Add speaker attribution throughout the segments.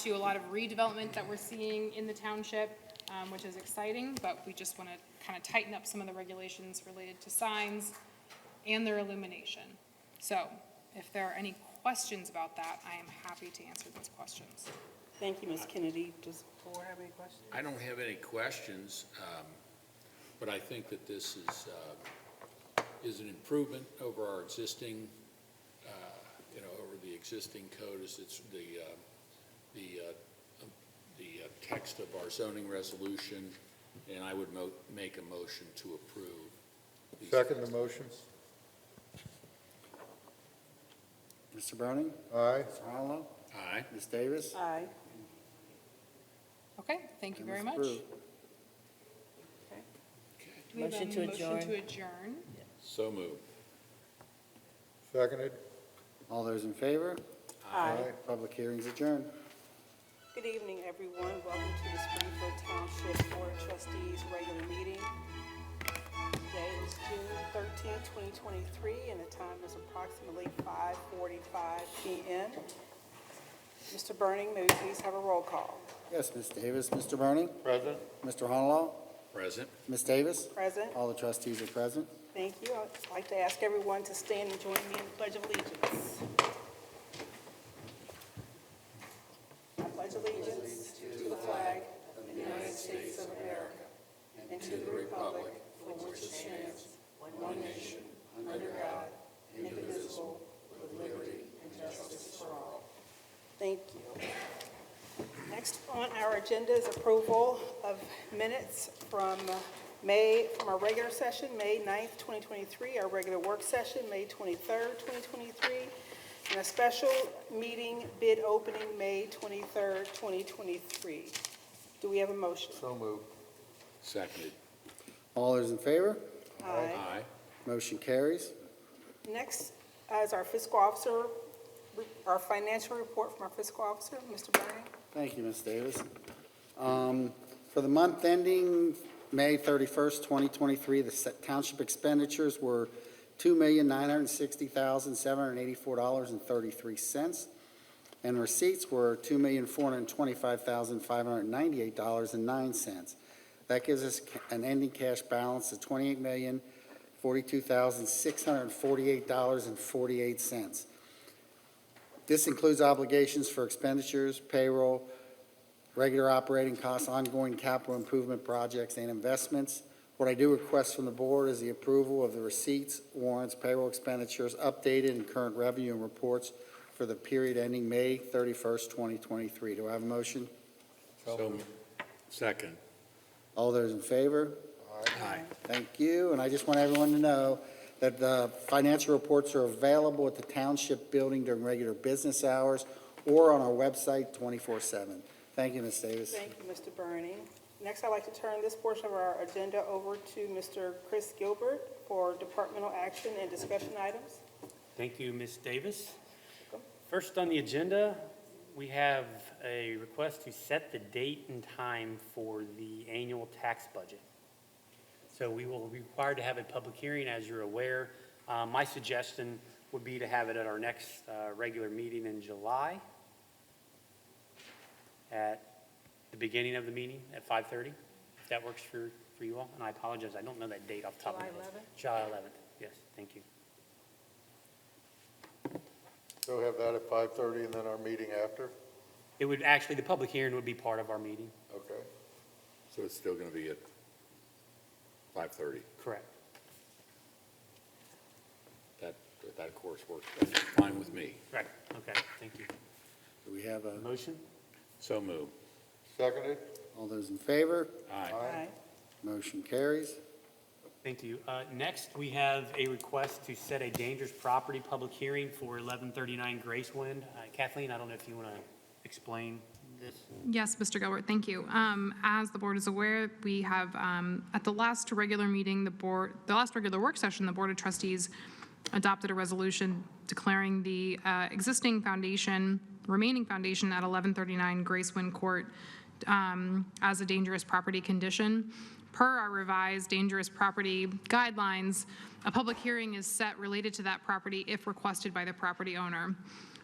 Speaker 1: to a lot of redevelopment that we're seeing in the township, um, which is exciting, but we just want to kind of tighten up some of the regulations related to signs and their illumination. So if there are any questions about that, I am happy to answer those questions.
Speaker 2: Thank you, Ms. Kennedy. Does the board have any questions?
Speaker 3: I don't have any questions, um, but I think that this is, uh, is an improvement over our existing, uh, you know, over the existing code, as it's the, uh, the, uh, the uh, text of our zoning resolution, and I would mo- make a motion to approve. these-
Speaker 4: Second the motion.
Speaker 5: Mr. Browning?
Speaker 4: Aye.
Speaker 5: Mr. Honolo?
Speaker 3: Aye.
Speaker 5: Ms. Davis?
Speaker 2: Aye.
Speaker 1: Okay, thank you
Speaker 5: And
Speaker 1: very
Speaker 5: it's
Speaker 1: much.
Speaker 5: approved.
Speaker 1: Do we have a
Speaker 6: Motion to
Speaker 1: Motion
Speaker 6: adjourn.
Speaker 1: to adjourn.
Speaker 3: So moved.
Speaker 4: Seconded?
Speaker 5: All those in favor?
Speaker 2: Aye.
Speaker 5: Public hearing's adjourned.
Speaker 2: Good evening, everyone. Welcome to the Springfield Township Board of Trustees regular meeting. Today is June thirteenth, twenty twenty-three, and the time is approximately five forty-five PM. Mr. Burning, may we please have a roll call?
Speaker 5: Yes, Ms. Davis, Mr. Browning,
Speaker 4: Present?
Speaker 5: Mr. Honolo,
Speaker 3: Present.
Speaker 5: Ms. Davis?
Speaker 2: Present?
Speaker 5: All the trustees are present.
Speaker 2: Thank you. I'd like to ask everyone to stand and join me in the Pledge of Allegiance. I pledge allegiance to the flag of the United States of America and to the republic for which it stands, one nation, under God, indivisible, with liberty and justice for all. Thank you. Next on our agenda is approval of minutes from uh, May, from our regular session, May 9th, 2023, our regular work session, May 23rd, 2023, and a special meeting bid opening, May 23rd, 2023. Do we have a motion?
Speaker 4: So moved.
Speaker 3: Seconded.
Speaker 5: All those in favor?
Speaker 2: Aye.
Speaker 3: Aye.
Speaker 5: Motion carries.
Speaker 2: Next is our fiscal officer, our financial report from our fiscal officer, Mr. Burning.
Speaker 5: Thank you, Ms. Davis. Um, For the month ending May 31st, 2023, the se- township expenditures were $2,960,784.33, and receipts were $2,425,598.09. That gives us ca- an ending cash balance of $28,042,648.48. This includes obligations for expenditures, payroll, regular operating costs, ongoing capital improvement projects, and investments. What I do request from the board is the approval of the receipts, warrants, payroll expenditures, updated and current revenue and reports for the period ending May 31st, 2023. Do I have a motion?
Speaker 3: So moved. Second.
Speaker 5: All those in favor?
Speaker 3: Aye.
Speaker 5: Thank you, and I just want everyone to know that the financial reports are available at the township building during regular business hours or on our website 24/7. Thank you, Ms. Davis.
Speaker 2: Thank you, Mr. Burning. Next, I'd like to turn this portion of our agenda over to Mr. Chris Gilbert for departmental action and discussion items.
Speaker 7: Thank you, Ms. Davis. First on the agenda, we have a request to set the date and time for the annual tax budget. So we will be required to have a public hearing, as you're aware. Uh, My suggestion would be to have it at our next uh, regular meeting in July at the beginning of the meeting at 5:30, if that works for, for you all. And I apologize, I don't know that date off the top of my head. July 11th? July 11th, yes, thank you.
Speaker 4: So have that at 5:30 and then our meeting after?
Speaker 7: It would, actually, the public hearing would be part of our meeting.
Speaker 4: Okay.
Speaker 3: So it's still going to be at 5:30?
Speaker 7: Correct.
Speaker 3: That, that of course works fine with me.
Speaker 7: Right, okay, thank you.
Speaker 5: Do we have a,
Speaker 7: Motion?
Speaker 3: So moved.
Speaker 4: Seconded?
Speaker 5: all those in favor?
Speaker 3: Aye.
Speaker 2: Aye.
Speaker 5: Motion carries.
Speaker 7: Thank you. Uh, Next, we have a request to set a dangerous property public hearing for 1139 Gracewind. Uh, Kathleen, I don't know if you want to explain this?
Speaker 1: Yes, Mr. Gilbert, thank you. Um, As the board is aware, we have, um, at the last regular meeting, the board, the last regular work session, the Board of Trustees adopted a resolution declaring the uh, existing foundation, remaining foundation at 1139 Gracewind Court um, as a dangerous property condition. Per our revised dangerous property guidelines, a public hearing is set related to that property if requested by the property owner.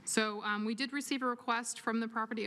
Speaker 1: So um, we did receive a request from the property